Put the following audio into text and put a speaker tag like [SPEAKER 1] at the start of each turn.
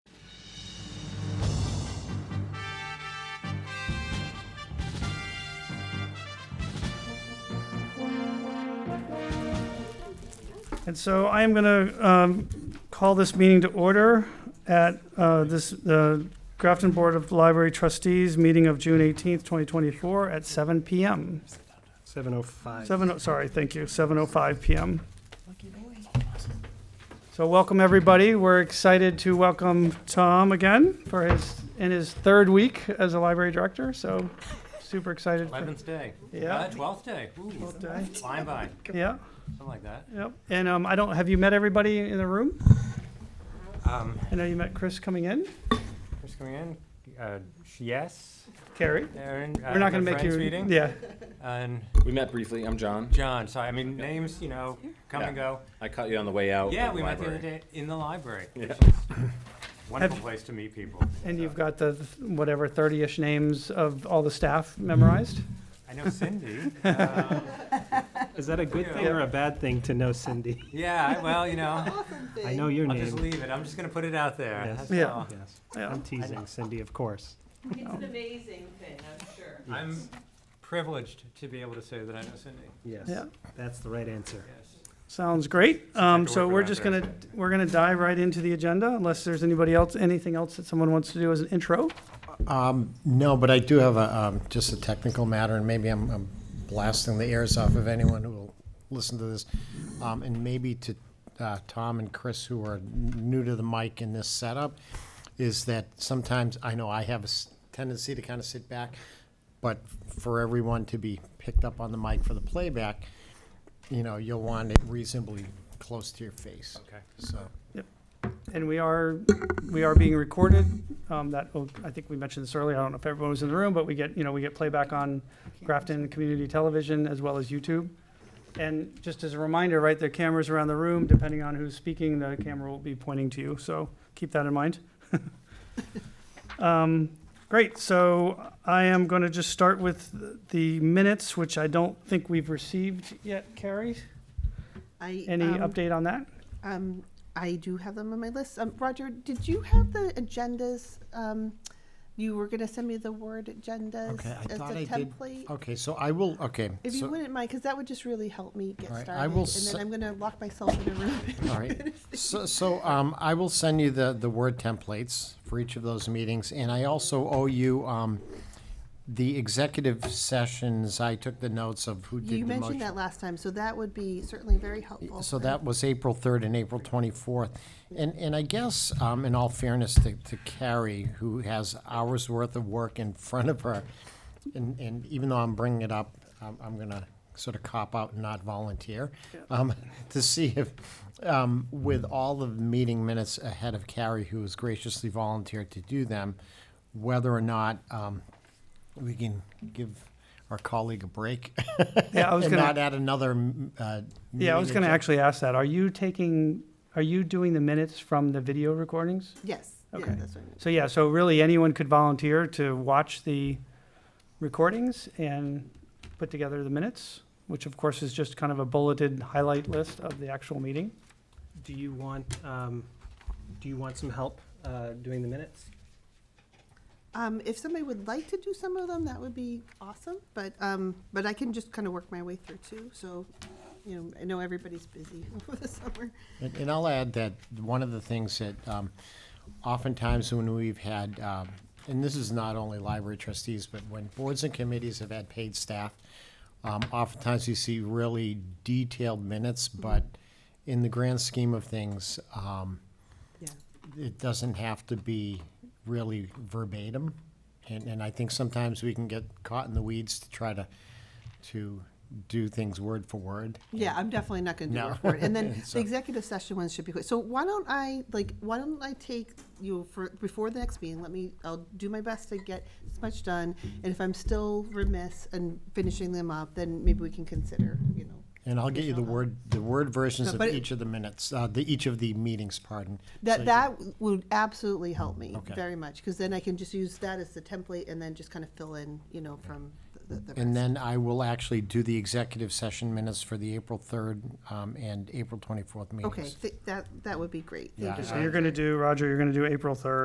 [SPEAKER 1] And so I am going to call this meeting to order at uh, this, the Grafton Board of Library Trustees, meeting of June 18th, 2024, at 7 PM.
[SPEAKER 2] 7:05.
[SPEAKER 1] Seven, oh- sorry, thank you, 7:05 PM. So welcome, everybody. We're excited to welcome Tom again for his, in his third week as a library director, so super excited. for-
[SPEAKER 3] Eleventh day.
[SPEAKER 1] Yeah.
[SPEAKER 3] Uh, Twelfth day. Ooh,
[SPEAKER 1] day.
[SPEAKER 3] flying by,
[SPEAKER 1] Yeah,
[SPEAKER 3] something like that.
[SPEAKER 1] yep. And um, I don't, have you met everybody in the room?
[SPEAKER 3] Um,
[SPEAKER 1] I know you met Chris coming in,
[SPEAKER 3] Chris coming in, uh, sh- yes,
[SPEAKER 1] Carrie.
[SPEAKER 3] Aaron. uh,
[SPEAKER 1] We're not going to make you.
[SPEAKER 3] Meeting,
[SPEAKER 1] Yeah,
[SPEAKER 3] and
[SPEAKER 4] We met briefly. I'm John.
[SPEAKER 3] John, sorry, I mean, names, you know, come and go.
[SPEAKER 4] I caught you on the way out.
[SPEAKER 3] Yeah,
[SPEAKER 4] of
[SPEAKER 3] we met the other
[SPEAKER 4] library.
[SPEAKER 3] day in the library. which
[SPEAKER 4] Yeah.
[SPEAKER 3] is Wonderful
[SPEAKER 1] Have-
[SPEAKER 3] place to meet people.
[SPEAKER 1] and
[SPEAKER 3] So,
[SPEAKER 1] you've got the th- whatever thirty-ish names of all the staff memorized.
[SPEAKER 3] I know Cindy. uh,
[SPEAKER 2] Is that a good
[SPEAKER 3] Yeah.
[SPEAKER 2] thing or a bad thing to know Cindy?
[SPEAKER 3] Yeah, I- well, you know,
[SPEAKER 2] I know your
[SPEAKER 3] I'll just
[SPEAKER 2] name.
[SPEAKER 3] leave it. I'm just gonna put it out there.
[SPEAKER 2] Yes.
[SPEAKER 3] That's
[SPEAKER 1] Yeah.
[SPEAKER 3] all.
[SPEAKER 2] Yes,
[SPEAKER 1] Yeah.
[SPEAKER 2] I'm teasing Cindy, of course.
[SPEAKER 5] It's an amazing thing, I'm sure.
[SPEAKER 3] I'm privileged to be able to say that I know Cindy,
[SPEAKER 2] Yes,
[SPEAKER 1] Yeah.
[SPEAKER 2] that's the right answer.
[SPEAKER 3] yes.
[SPEAKER 1] Sounds great. Um,
[SPEAKER 3] to
[SPEAKER 1] so
[SPEAKER 3] work
[SPEAKER 1] we're
[SPEAKER 3] around
[SPEAKER 1] just
[SPEAKER 3] for
[SPEAKER 1] gonna, we're gonna dive right into the agenda unless there's anybody else, anything else that someone wants to do as an intro.
[SPEAKER 6] Um, No, but I do have a, um, just a technical matter, and maybe I'm I'm blasting the ears off of anyone who will listen to this. Um, And maybe to uh, Tom and Chris, who are n- new to the mic in this setup, is that sometimes, I know I have a s- tendency to kind of sit back, but for everyone to be picked up on the mic for the playback, you know, you'll want it reasonably close to your face,
[SPEAKER 3] Okay.
[SPEAKER 6] so.
[SPEAKER 1] And we are, we are being recorded. Um, that, oh, I think we mentioned this earlier. I don't know if everyone was in the room, but we get, you know, we get playback on Grafton Community Television as well as YouTube. And just as a reminder, right, there are cameras around the room. Depending on who's speaking, the camera will be pointing to you. So keep that in mind. Um, Great. So I am going to just start with the minutes, which I don't think we've received yet, Carrie.
[SPEAKER 7] I,
[SPEAKER 1] Any
[SPEAKER 7] um,
[SPEAKER 1] update on that?
[SPEAKER 7] Um, I do have them on my list. Um, Roger, did you have the agendas? Um, you were gonna send me the word agendas
[SPEAKER 6] Okay, I
[SPEAKER 7] as
[SPEAKER 6] thought
[SPEAKER 7] a
[SPEAKER 6] I did-
[SPEAKER 7] template?
[SPEAKER 6] Okay, so I will, okay.
[SPEAKER 7] If you
[SPEAKER 6] so-
[SPEAKER 7] wouldn't mind, because that would just really help me get
[SPEAKER 6] All
[SPEAKER 7] started.
[SPEAKER 6] right, I will
[SPEAKER 7] And
[SPEAKER 6] se-
[SPEAKER 7] then I'm gonna lock myself in a room.
[SPEAKER 6] All right. So, so um, I will send you the, the Word templates for each of those meetings, and I also owe you um, the executive sessions. I took the notes of who did
[SPEAKER 7] You
[SPEAKER 6] the
[SPEAKER 7] mentioned that
[SPEAKER 6] motion.
[SPEAKER 7] last time, so that would be certainly very helpful.
[SPEAKER 6] So
[SPEAKER 7] for-
[SPEAKER 6] that was April third and April twenty-fourth. And, and I guess, um, in all fairness to, to Carrie, who has hours worth of work in front of her, and, and even though I'm bringing it up, I'm, I'm gonna sort of cop out and not volunteer, um, to see if, um, with all of the meeting minutes ahead of Carrie, who has graciously volunteered to do them, whether or not, um, we can give our colleague a break.
[SPEAKER 1] Yeah, I was
[SPEAKER 6] And
[SPEAKER 1] gonna-
[SPEAKER 6] not add another, m- uh,
[SPEAKER 1] Yeah, I was going
[SPEAKER 6] meeting
[SPEAKER 1] to
[SPEAKER 6] agenda.
[SPEAKER 1] actually ask that. Are you taking, are you doing the minutes from the video recordings?
[SPEAKER 7] Yes, yeah,
[SPEAKER 1] Okay.
[SPEAKER 7] that's what I meant.
[SPEAKER 1] So yeah, so really anyone could volunteer to watch the recordings and put together the minutes, which of course is just kind of a bulleted highlight list of the actual meeting.
[SPEAKER 2] Do you want, um, do you want some help uh, doing the minutes?
[SPEAKER 7] Um, if somebody would like to do some of them, that would be awesome, but, um, but I can just kind of work my way through too, so, you know, I know everybody's busy over the summer.
[SPEAKER 6] And, and I'll add that one of the things that um, oftentimes when we've had, um, and this is not only library trustees, but when boards and committees have had paid staff, um, oftentimes you see really detailed minutes, but in the grand scheme of things, um,
[SPEAKER 7] Yeah.
[SPEAKER 6] it doesn't have to be really verbatim. And, and I think sometimes we can get caught in the weeds to try to, to do things word for word.
[SPEAKER 7] Yeah, I'm definitely not gonna do
[SPEAKER 6] No.
[SPEAKER 7] it for it. And then
[SPEAKER 6] So-
[SPEAKER 7] the executive session ones should be quick. So why don't I, like, why don't I take you for, before the next meeting, let me, I'll do my best to get as much done. And if I'm still remiss in finishing them up, then maybe we can consider, you know.
[SPEAKER 6] And I'll get you the
[SPEAKER 7] Michelle.
[SPEAKER 6] word, the word versions
[SPEAKER 7] No,
[SPEAKER 6] of
[SPEAKER 7] but it-
[SPEAKER 6] each of the minutes, uh, the, each of the meetings, pardon. So
[SPEAKER 7] That,
[SPEAKER 6] you-
[SPEAKER 7] that would absolutely help me
[SPEAKER 6] Okay.
[SPEAKER 7] very much, because then I can just use that as the template and then just kind of fill in, you know, from the, the
[SPEAKER 6] And
[SPEAKER 7] rest.
[SPEAKER 6] then I will actually do the executive session minutes for the April third, um, and April twenty-fourth meetings.
[SPEAKER 7] Okay, thi- that, that would be great. Thank
[SPEAKER 6] Yeah,
[SPEAKER 7] you.
[SPEAKER 6] I-
[SPEAKER 1] So
[SPEAKER 7] Roger.
[SPEAKER 1] you're going to do, Roger, you're going to do April 3rd.